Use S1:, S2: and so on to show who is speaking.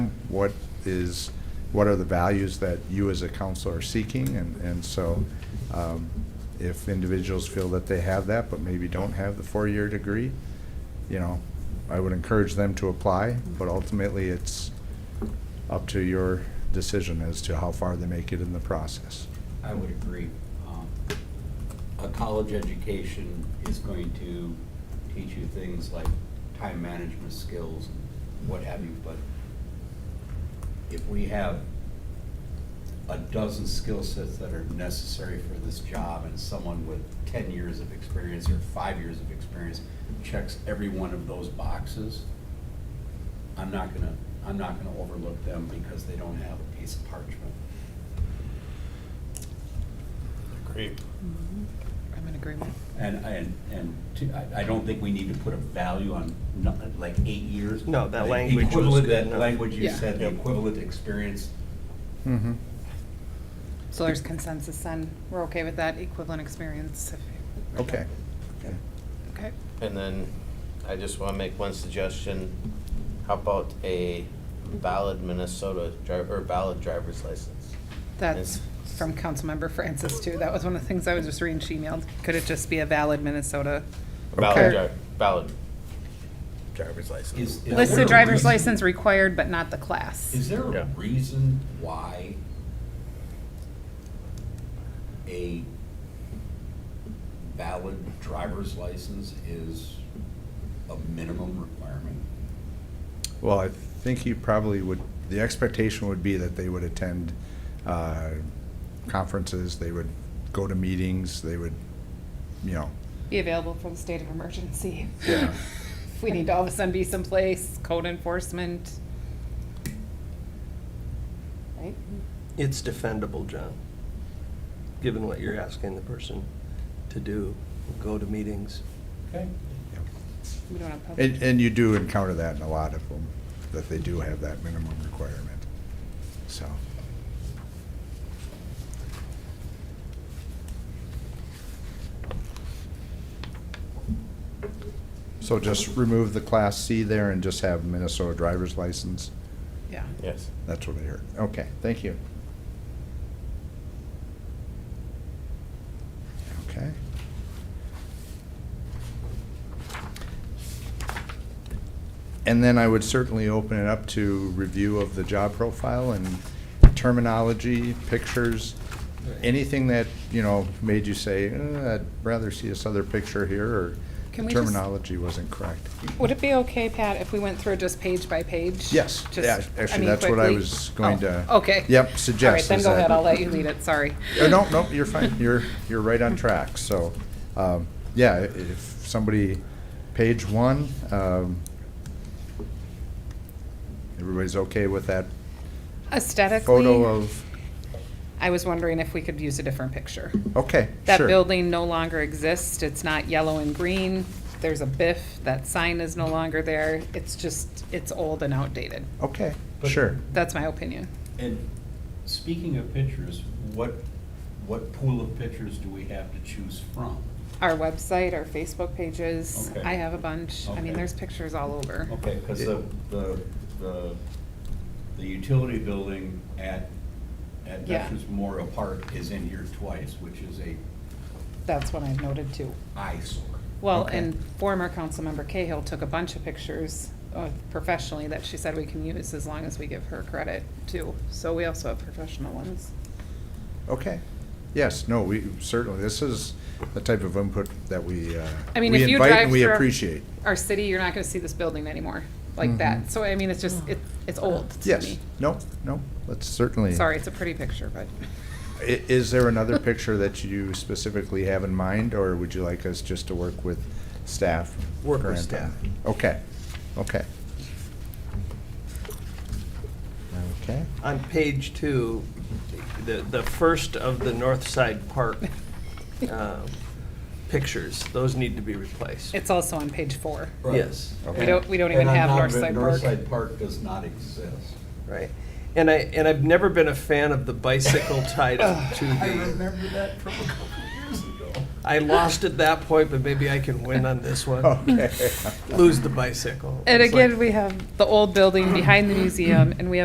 S1: what is, what are the values that you as a council are seeking? And, and so um, if individuals feel that they have that, but maybe don't have the four-year degree, you know, I would encourage them to apply, but ultimately, it's up to your decision as to how far they make it in the process.
S2: I would agree. Um, A college education is going to teach you things like time management skills, and what have you, but if we have a dozen skill sets that are necessary for this job, and someone with ten years of experience or five years of experience checks every one of those boxes, I'm not gonna, I'm not gonna overlook them because they don't have a piece of parchment.
S3: Great.
S4: I'm in agreement.
S2: And, and, and to- I- I don't think we need to put a value on, no- like, eight years.
S3: No, that
S2: The
S3: language was
S2: equivalent-
S3: good enough.
S2: That language you
S4: Yeah.
S2: said, the equivalent experience,
S1: Mm-hmm.
S4: So there's consensus then, we're okay with that equivalent experience?
S1: Okay.
S4: Okay,
S3: And then I just want to make one suggestion. How about a valid Minnesota driver, or valid driver's license?
S4: that's
S3: Yes.
S4: from Councilmember Francis too, that was one of the things I was just reading, she emailed, could it just be a valid Minnesota?
S1: Okay.
S3: Valid, dri- valid driver's
S2: is.
S3: license.
S2: is
S4: List
S2: there
S4: the
S2: a
S4: driver's
S2: reason-
S4: license required, but not the class.
S2: Is there a
S3: Yeah.
S2: reason why a valid driver's license is a minimum requirement?
S1: Well, I think he probably would, the expectation would be that they would attend uh, conferences, they would go to meetings, they would, you know,
S4: Be available for the state of emergency.
S1: Yeah.
S4: If we need to all of a sudden be someplace, code enforcement. Right?
S5: It's defendable, John, given what you're asking the person to do, go to meetings.
S2: Okay.
S1: you know.
S4: We don't have public.
S1: and, and you do encounter that in a lot of them, that they do have that minimum requirement, so. So just remove the Class C there and just have Minnesota driver's license?
S4: Yeah.
S3: Yes.
S1: That's what I heard. Okay, thank you. Okay. And then I would certainly open it up to review of the job profile and terminology, pictures, anything that, you know, made you say, "Uh, I'd rather see this other picture here, or
S4: Can
S1: the
S4: we just-
S1: terminology wasn't correct.
S4: Would it be okay, Pat, if we went through just page by page?
S1: Yes,
S4: Just-
S1: yeah,
S4: I
S1: actually,
S4: mean,
S1: that's what I
S4: quickly?
S1: was going to.
S4: Oh, Okay.
S1: Yep,
S4: All right,
S1: suggest.
S4: then
S1: is
S4: go
S1: that-
S4: ahead, I'll let you lead it, sorry.
S1: Uh, No, no, you're fine, you're, you're right on track, so, um, yeah, i- if somebody, page one, um, everybody's okay with that photo
S4: Aesthetically,
S1: of,
S4: I was wondering if we could use a different picture.
S1: okay,
S4: That
S1: sure.
S4: building no longer exists, it's not yellow and green, there's a biff, that sign is no longer there, it's just, it's old and outdated.
S1: Okay,
S2: But-
S1: sure.
S4: That's my opinion.
S2: And speaking of pictures, what, what pool of pictures do we have to choose from?
S4: Our website, our Facebook pages,
S2: Okay.
S4: I have a bunch, I mean,
S2: Okay.
S4: there's pictures all over.
S2: Okay, because the, the, the, the utility building at, at
S4: Yeah.
S2: Veterans Memorial Park is in here twice, which is a
S4: That's what I've noted too.
S2: eyesore.
S4: Well,
S1: Okay.
S4: and former Councilmember Cahill took a bunch of pictures uh, professionally that she said we can use as long as we give her credit too. So we also have professional ones.
S1: Okay, yes, no, we, certainly, this is the type of input that we, uh,
S4: I mean,
S1: we
S4: if you
S1: invite
S4: drive
S1: and we
S4: through-
S1: appreciate.
S4: Our city, you're not gonna see this building anymore like
S1: Mhm.
S4: that. So I mean, it's just, it, it's old to
S1: Yes,
S4: me.
S1: no, no, let's certainly.
S4: Sorry, it's a pretty picture, but
S1: I- Is there another picture that you specifically have in mind, or would you like us just to work with staff?
S5: Work with
S1: Grant, on
S5: staff.
S1: that? Okay, okay. Okay,
S5: On page two, the, the first of the North Side Park um, pictures, those need to be replaced.
S4: it's also on page four.
S5: Yes.
S4: We
S1: Okay.
S4: don't, we don't even
S2: And I'm
S4: have
S2: not-
S4: Northside Park.
S2: Northside Park does not exist.
S5: Right. And I, and I've never been a fan of the bicycle tied up to
S2: I
S5: the,
S2: remember that from a couple years ago.
S5: I lost at that point, but maybe I can win on this one.
S1: okay.
S5: Lose the bicycle.
S4: And
S5: It's like-
S4: again, we have the old building behind the museum and we have